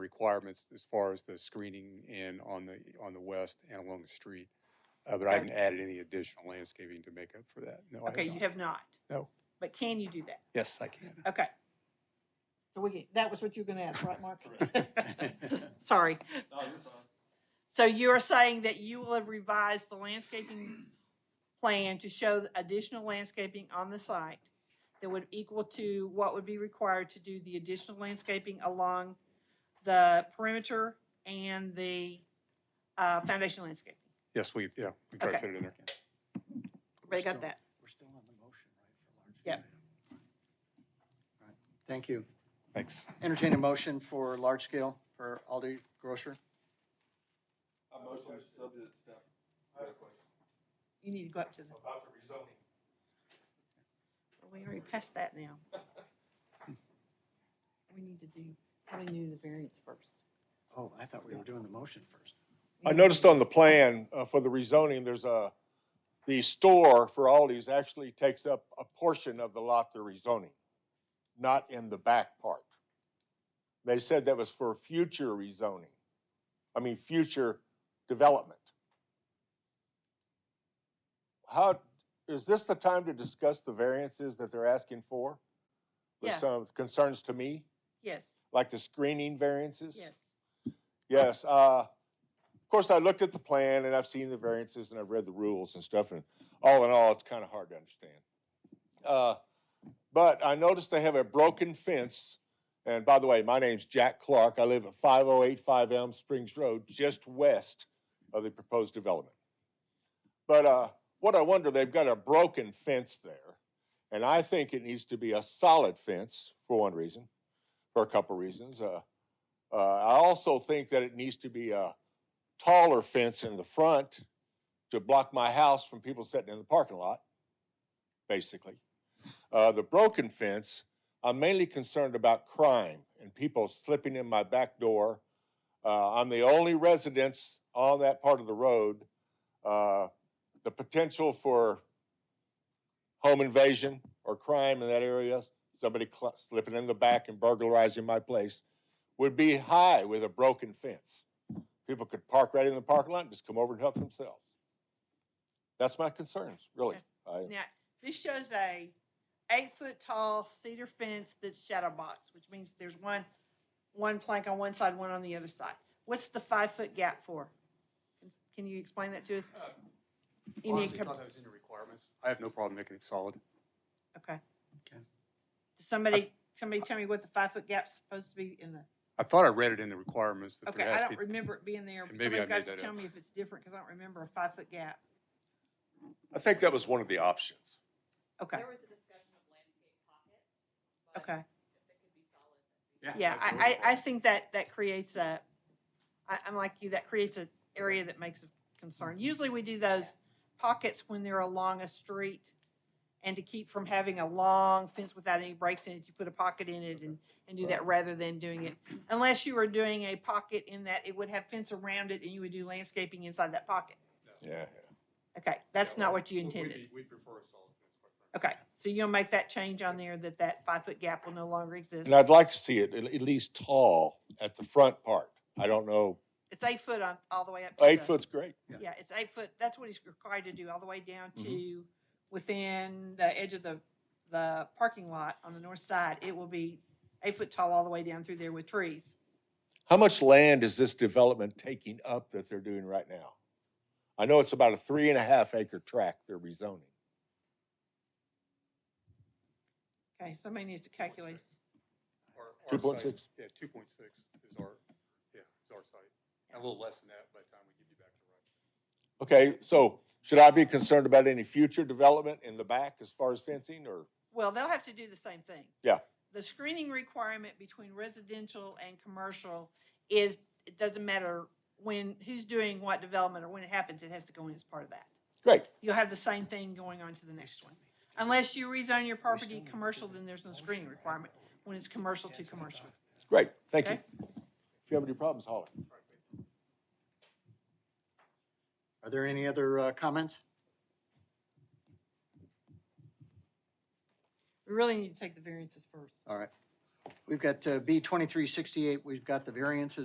requirements as far as the screening in on the, on the west and along the street. Uh, but I haven't added any additional landscaping to make up for that. No, I have Okay, you not. have not. No. But can you do that? Yes, I can. Okay. So we, that was what you were gonna ask, right, Mark? Correct. Sorry. No, you're fine. So you are saying that you will have revised the landscaping plan to show additional landscaping on the site that would equal to what would be required to do the additional landscaping along the perimeter and the uh, foundation landscape. Yes, we, yeah, we try to Okay. fit it in there. Everybody got that? We're still on the motion, right? for large Yep. scale? Right. Thank you. Thanks. Entertain a motion for large scale for Aldi Grocer. I motion to subject staff. You need to go up to the, About the rezoning. we already passed that now. We need to do, we knew the variance first. Oh, I thought we were doing the motion first. I noticed on the plan uh, for the rezoning, there's a, the store for Aldi's actually takes up a portion of the lot they're rezoning, not in the back part. They said that was for future rezoning, I mean, future development. How, is this the time to discuss the variances that they're asking for? With Yeah. some concerns to me, Yes, like the screening variances? yes. Yes, uh, of course, I looked at the plan and I've seen the variances and I've read the rules and stuff, and all in all, it's kind of hard to understand. Uh, but I noticed they have a broken fence, and by the way, my name's Jack Clark. I live at five oh eight five Elm Springs Road, just west of the proposed development. But, uh, what I wonder, they've got a broken fence there, and I think it needs to be a solid fence, for one reason, for a couple reasons, uh, uh, I also think that it needs to be a taller fence in the front to block my house from people sitting in the parking lot, basically. Uh, the broken fence, I'm mainly concerned about crime and people slipping in my back door. Uh, I'm the only residence on that part of the road. Uh, the potential for home invasion or crime in that area, somebody cl- slipping in the back and burglarizing my place would be high with a broken fence. People could park right in the parking lot and just come over and help themselves. That's my concerns, really. I, Now, this shows a eight-foot-tall cedar fence that's shadow boxed, which means there's one, one plank on one side, one on the other side. What's the five-foot gap for? Can- Can you explain that to us? Uh, You need, Honestly, to thought come- that was in the requirements. I have no problem making it solid. okay. Okay. Does somebody, somebody tell me what the five-foot gap's supposed to be in the, I thought I read it in the requirements that okay, there I has to don't be. remember it being there. and but maybe I Somebody's got made to that tell up. me if it's different, because I don't remember a five-foot gap. I think that was one of the options. Okay, There was a discussion of landscape pockets, but okay. if it could be solid, that'd be. Yeah, that's I, beautiful. I, I think that, that creates a, I, I'm like you, that creates an area that makes a concern. Usually we do those pockets when they're along a street. And to keep from having a long fence without any breaks in it, you put a pocket in it and, and do that rather than doing it. Unless you were doing a pocket in that it would have fence around it and you would do landscaping inside that pocket. Yeah. Okay, that's Yeah, not well, what we- you we'd intended. be- We'd prefer a solid fence, quite frankly. Okay, so you'll make that change on there that that five-foot gap will no longer exist. And I'd like to see it at at least tall at the front part. I don't know, It's eight foot on, all the way up to eight the- foot's great. Yeah, it's eight foot, that's what he's required to do, all the way down Mm-hmm. to within the edge of the, the parking lot on the north side. It will be eight foot tall all the way down through there with trees. How much land is this development taking up that they're doing right now? I know it's about a three and a half acre tract they're rezoning. Okay, somebody needs to calculate. Our- our Two point site- six. Yeah, two point six is our, yeah, is our site. A little less than that by the time we give you back to right. Okay, so should I be concerned about any future development in the back as far as fencing or? Well, they'll have to do the same thing. Yeah. The screening requirement between residential and commercial is, it doesn't matter when, who's doing what development or when it happens, it has to go in as part of that. Great. You'll have the same thing going on to the next one. Unless you rezone your property commercial, then there's no screening requirement when it's commercial to commercial. Great, thank you. Okay. If you have any problems, holler. Are there any other uh, comments? We really need to take the variances first. All right. We've got uh, B twenty-three sixty-eight, we've got the variances